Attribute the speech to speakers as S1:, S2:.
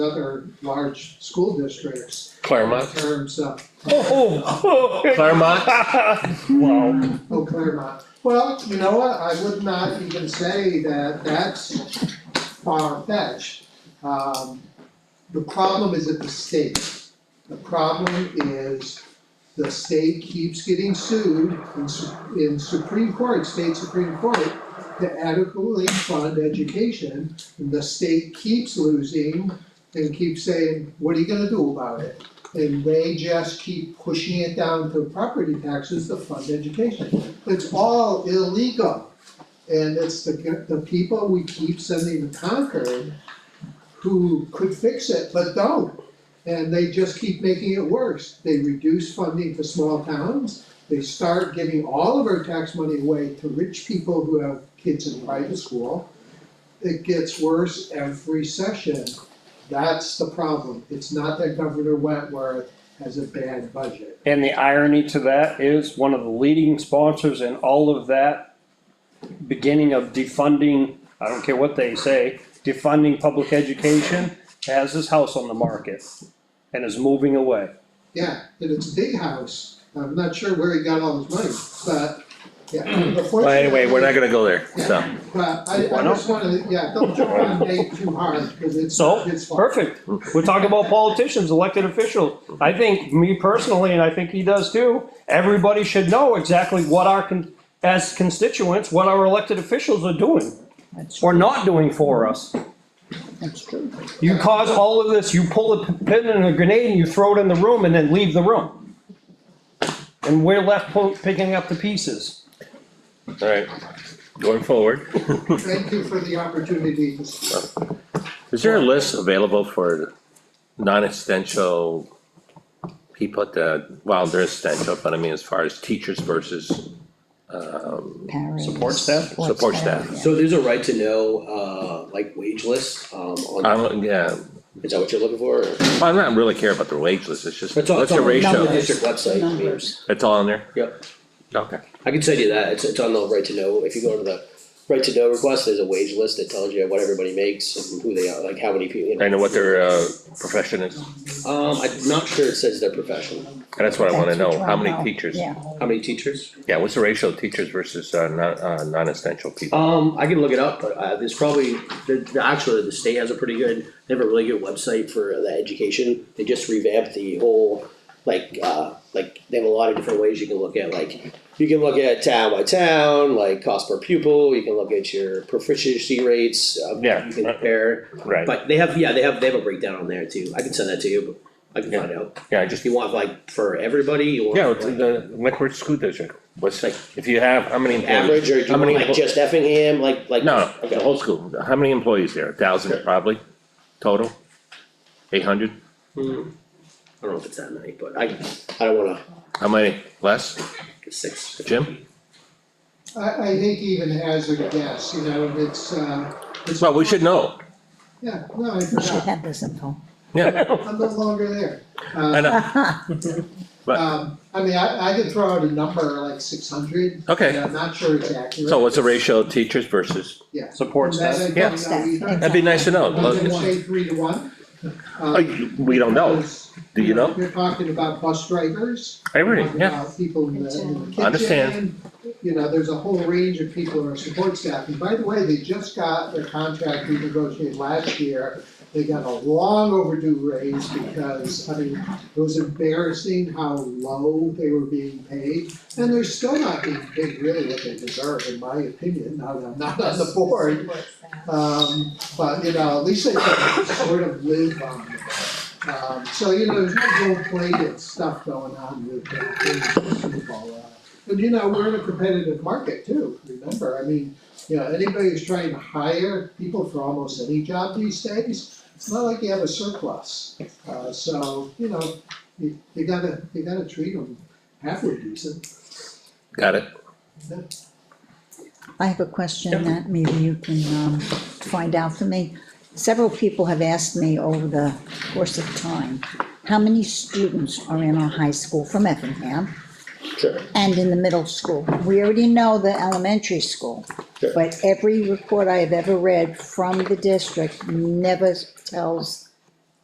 S1: other large school districts in
S2: Claremont.
S1: terms of,
S2: Claremont. Wow.
S1: oh Claremont. Well, you know what, I would not even say that that's far fetched. Um, the problem is at the state. The problem is the state keeps getting sued in su- in Supreme Court, state Supreme Court to adequately fund education. And the state keeps losing and keeps saying, what are you gonna do about it? And they just keep pushing it down to property taxes to fund education. It's all illegal. And it's the, the people we keep sending to Concord who could fix it, but don't. And they just keep making it worse. They reduce funding to small towns. They start giving all of our tax money away to rich people who have kids in private school. It gets worse every session. That's the problem. It's not that Governor Wentworth has a bad budget.
S3: And the irony to that is one of the leading sponsors in all of that beginning of defunding, I don't care what they say, defunding public education has his house on the market and is moving away.
S1: Yeah, and it's a big house. I'm not sure where he got all his money, but, yeah, unfortunately.
S2: Well, anyway, we're not gonna go there, so.
S1: But I,
S3: Why
S1: I
S3: not?
S1: just wanna, yeah, don't jump on Nate too hard, cause it's,
S3: So,
S1: it's fun.
S3: Perfect. We're talking about politicians, elected officials. I think, me personally, and I think he does too, everybody should know exactly what our, con- as constituents, what our elected officials are doing
S4: That's true,
S3: or not doing for us.
S4: that's true.
S3: You cause all of this, you pull a p- pin and a grenade and you throw it in the room and then leave the room. And we're left po- picking up the pieces.
S2: Alright, going forward.
S1: Thank you for the opportunity to speak.
S2: Is there a list available for non-essential people that, well, they're essential, but I mean, as far as teachers versus, um,
S4: Paras,
S3: Support staff?
S2: Support staff.
S4: yeah.
S5: So there's a right to know, uh, like wage list, um,
S2: I
S5: on,
S2: don't, yeah,
S5: is that what you're looking for? or-
S2: I am not really care about their wage list, it's just,
S5: It's on,
S2: what's
S5: it's
S2: your
S5: on the
S2: ratio?
S4: numbers.
S5: district website, I mean,
S4: Numbers.
S2: It's all in there?
S5: Yep.
S2: Okay.
S5: I can send you that, it's, it's on the right to know, if you go to the right to know request, there's a wage list that tells you what everybody makes and who they are, like how many people, you know.
S2: I know what their, uh, profession is,
S5: Um, I'm not sure it says their profession,
S2: and that's what I wanna
S4: That's what
S2: know,
S4: you
S2: how
S4: wanna
S2: many
S4: know.
S2: teachers?
S4: Yeah,
S5: how many teachers?
S2: Yeah, what's the ratio of teachers versus, uh, non, uh, non-essential people?
S5: Um, I can look it up, but, uh, there's probably, the, the, actually, the state has a pretty good, they have a really good website for the education, they just revamped the whole, like, uh, like, they have a lot of different ways you can look at, like, you can look at town by town, like cost per pupil, you can look at your proficiency rates, uh,
S2: Yeah.
S5: you can compare,
S2: Right,
S5: but they have, yeah, they have, they have a breakdown on there too, I can send that to you, but I can find out.
S2: yeah, I just
S5: If you want like for everybody, you want.
S2: Yeah, it's uh, the Lickford School District, what's,
S5: Like-
S2: if you have, how many employees?
S5: Average, or do
S2: How
S5: you
S2: many
S5: want like
S2: empl-
S5: just Effingham, like, like.
S2: No, no,
S5: Okay.
S2: the whole school, how many employees there, a thousand probably, total? Eight hundred,
S5: I don't know if it's that many, but I, I don't wanna,
S2: how many, less,
S5: six.
S2: Jim?
S1: I, I think even hazard a guess, you know, it's, uh, it's.
S2: Well, we should know,
S1: Yeah, no, I
S4: we should
S1: forgot,
S4: have this info.
S2: yeah,
S1: I'm no longer there.
S2: I
S1: Uh,
S2: know, but-
S1: um, I mean, I, I could throw out a number like six hundred, and
S2: okay,
S1: I'm not sure it's accurate.
S2: so what's the ratio of teachers versus,
S3: Support
S1: And
S3: staff.
S1: that I
S2: Yeah.
S1: don't know either.
S2: that'd be nice to know.
S1: I'm gonna
S2: Look,
S1: say three to one.
S2: oh,
S1: Um,
S2: you- We don't know,
S1: because,
S2: do you know?
S1: You're talking about bus drivers.
S2: I really,
S1: talking
S2: yeah,
S1: about People in the, in the kitchen.
S2: Understand.
S1: You know, there's a whole range of people who are support staff, and by the way, they just got their contract we negotiated last year. They got a long overdue raise because, I mean, it was embarrassing how low they were being paid. And they're still not being paid really what they deserve, in my opinion, now that I'm not on the board. Um, but, you know, at least they can sort of live on it. Um, so, you know, there's no gold-plated stuff going on with the Super Bowl. uh, And, you know, we're in a competitive market too, remember, I mean, you know, anybody who's trying to hire people for almost any job these days, it's not like you have a surplus. Uh, so, you know, you, you gotta, you gotta treat them halfway decent.
S2: got it,
S4: I have a question that maybe you can, um, find out for me. Several people have asked me over the course of time, how many students are in our high school from Effingham
S5: Sure.
S4: and in the middle school? We already know the elementary school,
S5: Sure.
S4: but every report I have ever read from the district never tells